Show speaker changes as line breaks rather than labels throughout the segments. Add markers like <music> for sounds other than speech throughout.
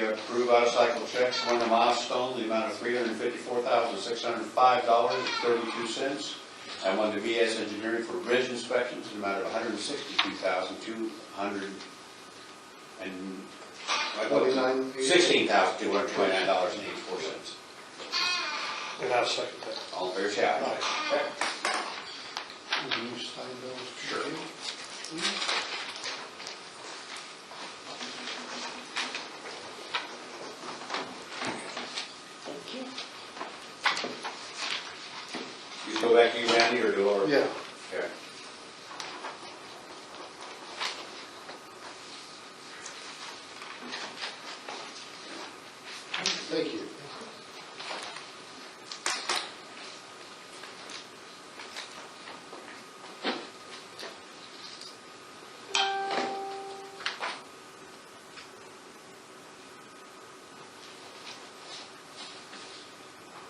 to approve out-of-cycle checks, one to Milestone, the amount of three hundred fifty-four thousand, six hundred five dollars and thirty-two cents, and one to VS Engineering for bridge inspections, in the amount of one hundred sixty-two thousand, two hundred and...
Twenty-nine.
Sixteen thousand, two hundred twenty-nine dollars and eighty-four cents.
And I'll second that.
All in favor, say aye.
Will you sign those?
Sure. You go back to you, Randy, or do Laura?
Yeah,
Yeah.
thank you.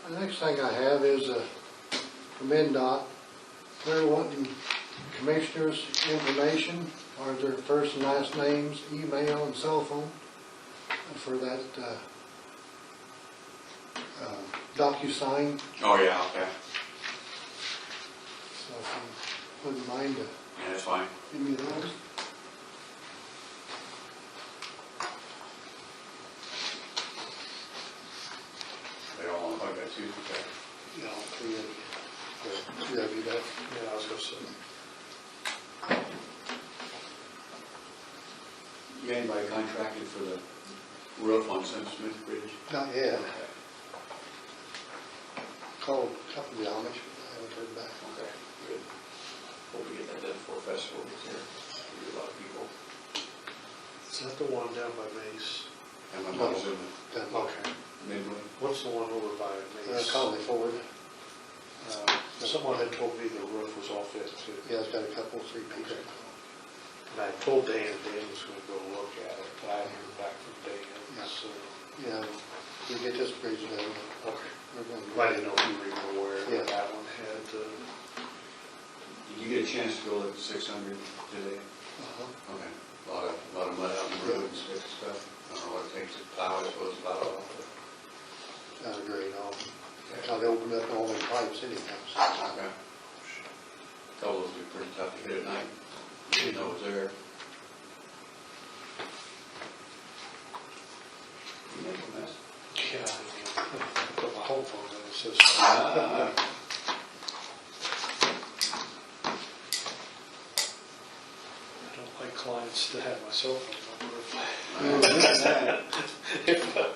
The next thing I have is a, from NDOT, they're wanting commissioners' information, or their first and last names, email and cell phone for that, uh, uh, DocuSign,
Oh, yeah, okay,
so if you wouldn't mind to
yeah, that's fine.
give me those.
They don't want to hook that too, okay.
Yeah, I'll three of you. Yeah, do that.
Yeah, I was gonna say.
You got anybody contracted for the roof on Center Smith Bridge?
Not yet. Called a couple of the Amish, but I haven't heard back.
Okay, good. Hope we get that done before festival gets here. There'll be a lot of people.
Is that the one down by Mace?
And my
No.
mom's in
Done.
Okay.
Midway.
What's the one over by
Uh,
Mace?
Conley Ford,
Uh, Someone had told me the roof was off it too.
yeah, it's got a couple, three pieces.
And I told Dan, Dan was gonna go look at it, but I haven't heard back from
Yeah.
Dan, so.
Yeah, we get this bridge done,
Okay.
we're going to.
I didn't know if you were even aware
Yeah.
that that one had, uh,
Did you get a chance to go at six hundred today?
Uh-huh.
Okay. A Lot of, lot of mud out in the road and stuff. I don't know what it takes to plow, it supposed to plow it off.
Not great, all, how they opened up all their pipes anyhow.
Okay. Couple would be pretty tough to hit at night. Didn't know it was there. You make a mess.
yeah, <laughs> I put my whole phone in, it says.
Ah.
I don't like clients to have my cell phone <laughs>
Uh,
number.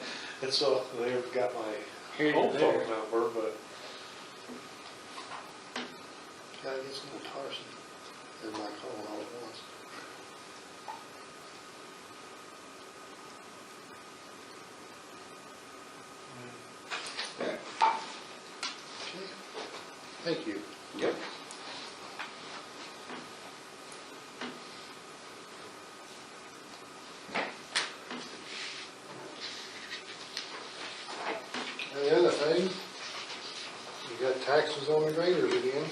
And so they've got my home phone number, but
Yeah, I guess no Tarzan, they're not calling all at once. Okay. Thank you.
Yep.
And the other thing, you got taxes on the graders again.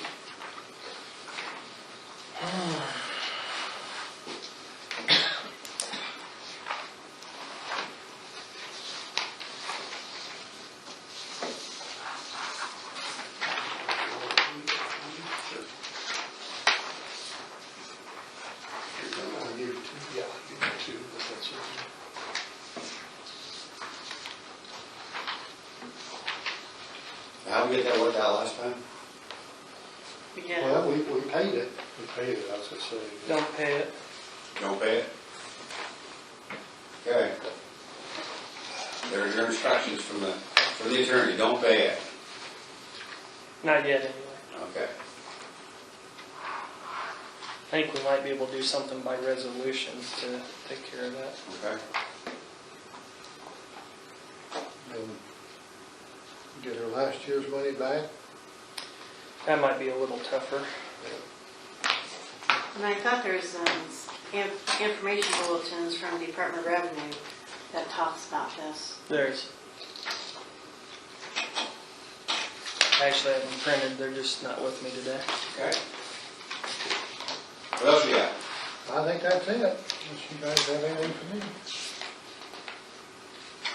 I give you two.
yeah, you can too, but that's okay.
How'd we get that worked out last time?
Well, we, we paid it.
We paid it, I was gonna say.
Don't pay it.
Don't pay it? Okay. There are your instructions from the, from the attorney, don't pay it.
Not yet, anyway.
Okay.
I think we might be able to do something by resolution to take care of that.
Okay.
and get her last year's money back.
That might be a little tougher.
And I thought there's um, inf- information bulletins from Department of Revenue that talks about this.
There's. Actually, I have them printed, they're just not with me today.
Okay. What else you got?
I think that's it, unless you guys have anything for me.